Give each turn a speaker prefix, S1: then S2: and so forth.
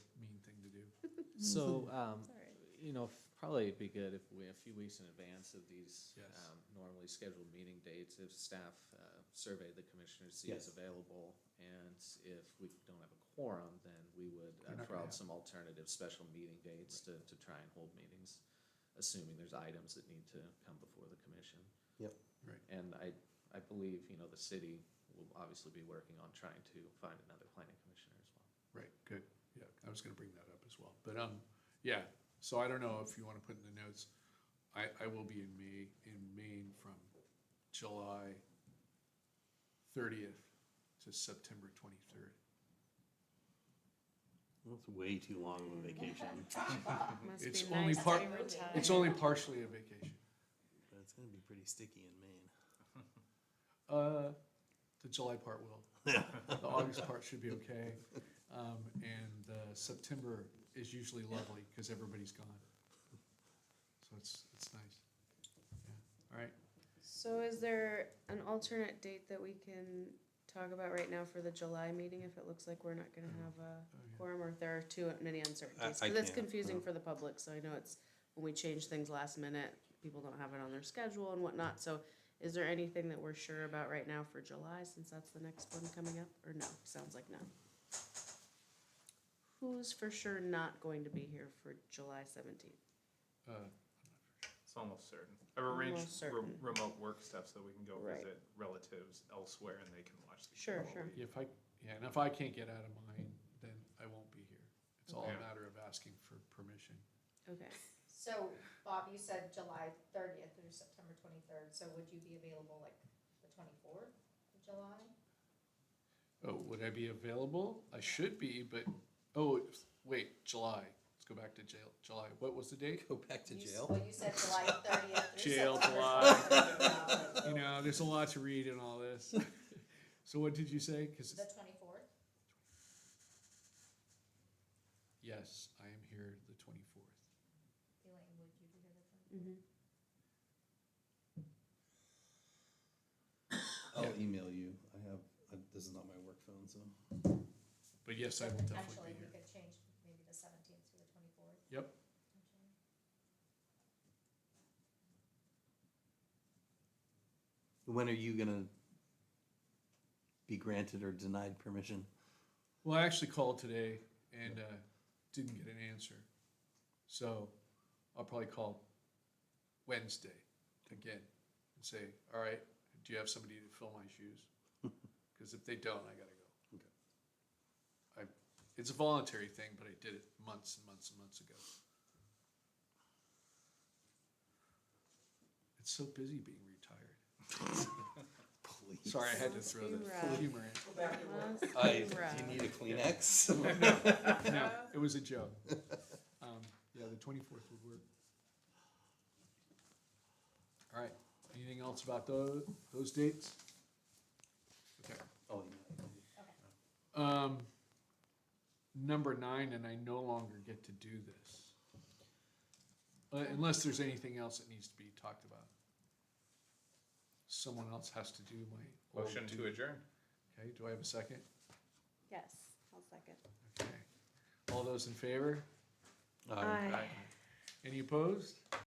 S1: So,
S2: Mm-hmm.
S1: um,
S3: all right.
S1: you know, f- probably it'd be good if we, a few weeks in advance of these
S2: Yes.
S1: um, normally scheduled meeting dates, if staff uh, surveyed the commissioners, see
S2: Yes.
S1: who's available. And if we don't have a quorum, then we would
S2: We're not gonna
S1: uh, throw out
S2: have-
S1: some alternative special meeting dates to, to try and hold meetings, assuming there's items that need to come before the commission.
S4: Yep.
S2: Right.
S1: And I, I believe, you know, the city will obviously be working on trying to find another planning commissioner as well.
S2: Right, good, yeah, I was gonna bring that up as well, but, um, yeah, so I don't know if you wanna put in the notes, I, I will be in May, in Maine from July thirtieth to September twenty-third.
S4: That's way too long of a vacation.
S3: Must
S2: It's
S3: be
S2: only
S3: nice to
S2: part-
S3: be retired.
S2: It's only partially a vacation.
S4: But it's gonna be pretty sticky in Maine.
S2: Uh, the July part will. The August part should be okay. Um, and, uh, September is usually lovely, cause everybody's gone. So it's, it's nice. Yeah, all right.
S3: So is there an alternate date that we can talk about right now for the July meeting if it looks like we're not gonna have a
S2: Oh, yeah.
S3: quorum or if there are too many uncertainties?
S4: I- I
S3: Cause it's
S4: can't,
S3: confusing
S4: no.
S3: for the public, so I know it's, when we change things last minute, people don't have it on their schedule and whatnot, so is there anything that we're sure about right now for July, since that's the next one coming up, or no, sounds like no? Who's for sure not going to be here for July seventeenth?
S2: Uh,
S5: It's almost certain. I've arranged
S3: Almost
S5: re-
S3: certain.
S5: remote work stuff so we can go
S3: Right.
S5: visit relatives elsewhere and they can watch the
S3: Sure,
S5: whole
S3: sure.
S5: week.
S2: Yeah, if I, yeah, and if I can't get out of mine, then I won't be here. It's all a
S5: Okay.
S2: matter of asking for permission.
S3: Okay,
S6: So Bob, you said July thirtieth through September twenty-third, so would you be available like the twenty-fourth of July?
S2: Oh, would I be available? I should be, but, oh, wait, July. Let's go back to jail, July. What was the date?
S4: Go back to
S6: You s-
S4: jail.
S6: Well, you said July thirtieth through
S2: Jail,
S6: September
S2: You
S6: twenty-third.
S2: know, there's a lot to read in all this. So what did you say? Cause,
S6: The
S2: it's-
S6: twenty-fourth,
S2: yes, I am here the twenty-fourth.
S6: Elaine, would you be here the
S3: mm-hmm.
S4: I'll email you. I have, I- this is not my work phone, so.
S2: But yes, I will
S6: 24th?
S2: definitely be
S6: Actually, we
S2: here.
S6: could change maybe the seventeenth to the twenty-fourth.
S2: Yep,
S4: When are you gonna be granted or denied permission?
S2: Well, I actually called today and uh, didn't get an answer. So I'll probably call Wednesday again and say, all right, do you have somebody to fill my shoes? Because if they don't, I got to go.
S4: Okay.
S2: I, it's a voluntary thing, but I did it months and months and months ago. It's so busy being retired.
S4: Please.
S2: Sorry, I had to throw the
S3: Right.
S2: humor in.
S3: Must be
S4: I,
S3: rough.
S4: do you need a Kleenex?
S2: No, it was a joke. Um, yeah, the twenty-fourth would work. All right, anything else about those, those dates? Okay,
S4: I'll email you.
S6: Okay.
S2: um, number nine, and I no longer get to do this. Uh, Unless there's anything else that needs to be talked about. Someone else has to do my. old
S5: Motion to
S2: duty.
S5: adjourn.
S2: Okay, do I have a second?
S3: Yes, I'll second.
S2: Okay, all those in favor?
S4: Um, All right.
S2: Any opposed?